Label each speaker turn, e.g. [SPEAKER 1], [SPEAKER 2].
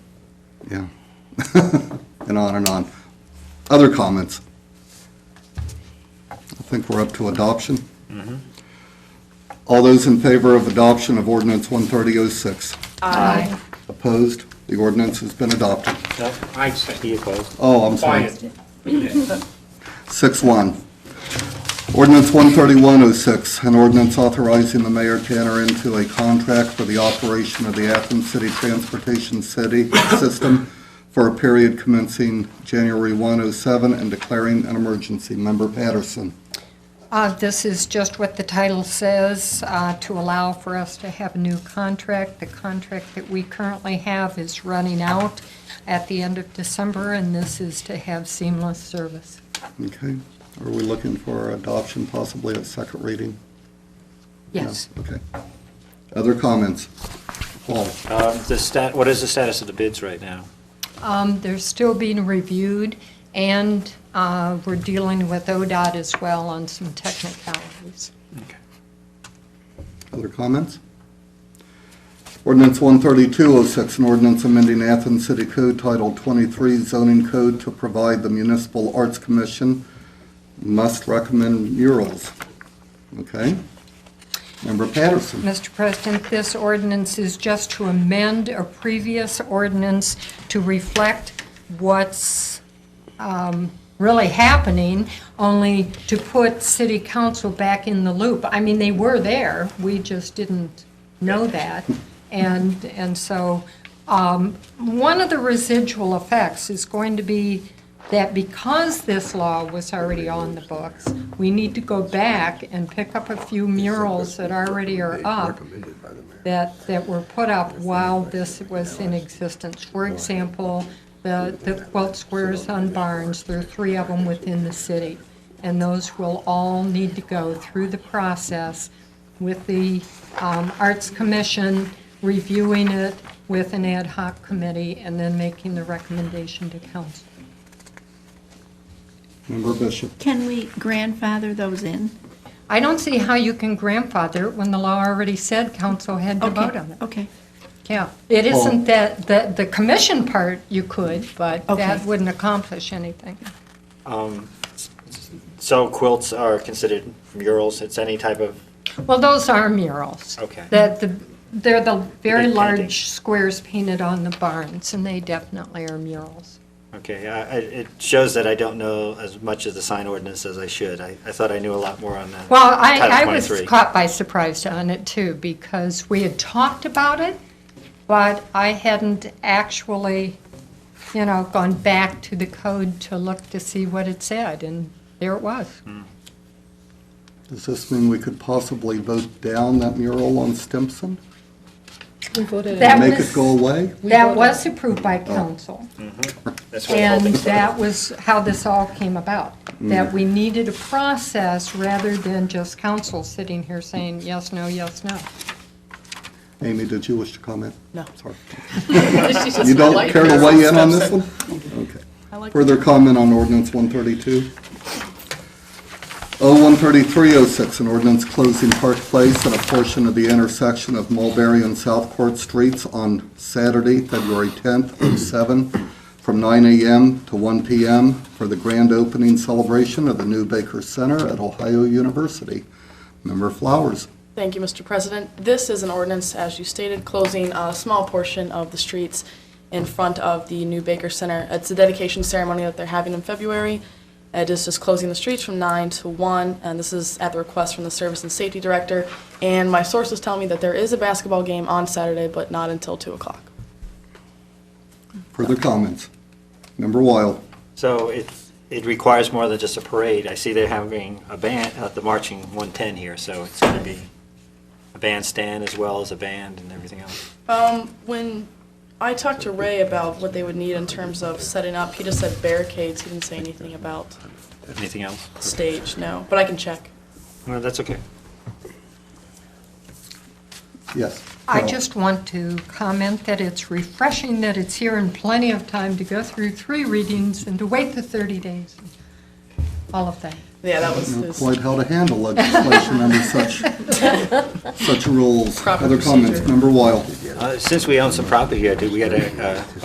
[SPEAKER 1] yeah. And on and on. Other comments? I think we're up to adoption. All those in favor of adoption of ordinance 13006?
[SPEAKER 2] Aye.
[SPEAKER 1] Opposed? The ordinance has been adopted.
[SPEAKER 3] No, I said he opposed.
[SPEAKER 1] Oh, I'm sorry.
[SPEAKER 3] Quiet.
[SPEAKER 1] Six one. Ordinance one thirty-one oh six, an ordinance authorizing the mayor to enter into a contract for the operation of the Athens City Transportation City System for a period commencing January 1, 07, and declaring an emergency. Member Patterson.
[SPEAKER 2] Uh, This is just what the title says, uh, to allow for us to have a new contract. The contract that we currently have is running out at the end of December, and this is to have seamless service.
[SPEAKER 1] Okay, are we looking for adoption possibly at second reading? No?
[SPEAKER 2] Yes.
[SPEAKER 1] Okay. Other comments? Paul?
[SPEAKER 3] Um, The stat, what is the status of the bids right now?
[SPEAKER 2] Um, They're still being reviewed, and uh, we're dealing with ODOT as well on some technicalities.
[SPEAKER 3] Okay.
[SPEAKER 1] Other comments? Ordinance 13206, an ordinance amending Athens City Code Title 23 zoning code to provide the Municipal Arts Commission must recommend murals. Okay? Member Patterson.
[SPEAKER 2] Mr. President, this ordinance is just to amend a previous ordinance to reflect what's um, really happening, only to put city council back in the loop. I mean, they were there, we just didn't know that. And, and so, um, one of the residual effects is going to be that because this law was already on the books, we need to go back and pick up a few murals that already are up that, that were put up while this was in existence. For example, the, the quilt squares on Barnes, there are three of them within the city. And those will all need to go through the process with the um, Arts Commission reviewing it with an ad hoc committee and then making the recommendation to council.
[SPEAKER 1] Member Bishop.
[SPEAKER 4] Can we grandfather those in?
[SPEAKER 2] I don't see how you can grandfather it when the law already said council had to
[SPEAKER 4] Okay,
[SPEAKER 2] vote on it.
[SPEAKER 4] Okay,
[SPEAKER 2] Yeah, it
[SPEAKER 1] Well-
[SPEAKER 2] isn't that, the, the commission part you could, but that
[SPEAKER 4] Okay.
[SPEAKER 2] wouldn't accomplish anything.
[SPEAKER 3] So quilts are considered murals, it's any type of,
[SPEAKER 2] Well, those are murals.
[SPEAKER 3] Okay.
[SPEAKER 2] That, the- they're the very
[SPEAKER 3] Big painting.
[SPEAKER 2] large squares painted on the barns, and they definitely are murals.
[SPEAKER 3] okay, I- I- it shows that I don't know as much of the sign ordinance as I should. I I thought I knew a lot more on that.
[SPEAKER 2] Well, I, I
[SPEAKER 3] Title
[SPEAKER 2] was
[SPEAKER 3] 23.
[SPEAKER 2] caught by surprise on it too, because we had talked about it, but I hadn't actually, you know, gone back to the code to look to see what it said, and there it was.
[SPEAKER 1] Does this mean we could possibly vote down that mural on Stimson?
[SPEAKER 5] We voted it.
[SPEAKER 2] That
[SPEAKER 1] Make
[SPEAKER 2] was-
[SPEAKER 1] it go away?
[SPEAKER 5] We
[SPEAKER 2] That
[SPEAKER 5] voted-
[SPEAKER 2] was approved by council.
[SPEAKER 3] That's what I'm
[SPEAKER 2] And
[SPEAKER 3] hoping.
[SPEAKER 2] that was how this all came about,
[SPEAKER 1] Mm.
[SPEAKER 2] that we needed a process rather than just council sitting here saying, yes, no, yes, no.
[SPEAKER 1] Amy, did you wish to comment?
[SPEAKER 5] No.
[SPEAKER 1] Sorry.
[SPEAKER 5] She's just
[SPEAKER 1] You don't
[SPEAKER 5] like
[SPEAKER 1] care to
[SPEAKER 5] her.
[SPEAKER 1] weigh in on this one? Okay.
[SPEAKER 5] I like
[SPEAKER 1] Further comment on ordinance oh 132? O 13306, an ordinance closing Park Place and a portion of the intersection of Mulberry and South Court Streets on Saturday, February 10th, 07, from 9 a.m. to 1 p.m. for the grand opening celebration of the new Baker Center at Ohio University. Member Flowers.
[SPEAKER 5] Thank you, Mr. President. This is an ordinance, as you stated, closing a small portion of the streets in front of the new Baker Center. It's a dedication ceremony that they're having in February. It is just closing the streets from 9 to 1, and this is at the request from the Service and Safety Director. And my sources tell me that there is a basketball game on Saturday, but not until 2 o'clock.
[SPEAKER 1] Further comments? Member Weil.
[SPEAKER 3] So it, it requires more than just a parade. I see they're having a band, uh, the marching 110 here, so it's going to be a bandstand as well as a band and everything else.
[SPEAKER 5] Um, When I talked to Ray about what they would need in terms of setting up, he just said barricades. He didn't say anything about
[SPEAKER 3] Anything else?
[SPEAKER 5] stage, no, but I can check.
[SPEAKER 3] No, that's okay.
[SPEAKER 1] Yes.
[SPEAKER 2] I
[SPEAKER 1] Carol.
[SPEAKER 2] just want to comment that it's refreshing that it's here in plenty of time to go through three readings and to wait the 30 days, all of that.
[SPEAKER 5] Yeah, that was
[SPEAKER 1] know
[SPEAKER 5] his.
[SPEAKER 1] quite how to handle legislation under such, such rules.
[SPEAKER 5] Proper
[SPEAKER 1] Other comments,
[SPEAKER 5] procedure.
[SPEAKER 1] Member Weil.
[SPEAKER 3] Uh, Since we own some property here, do we got to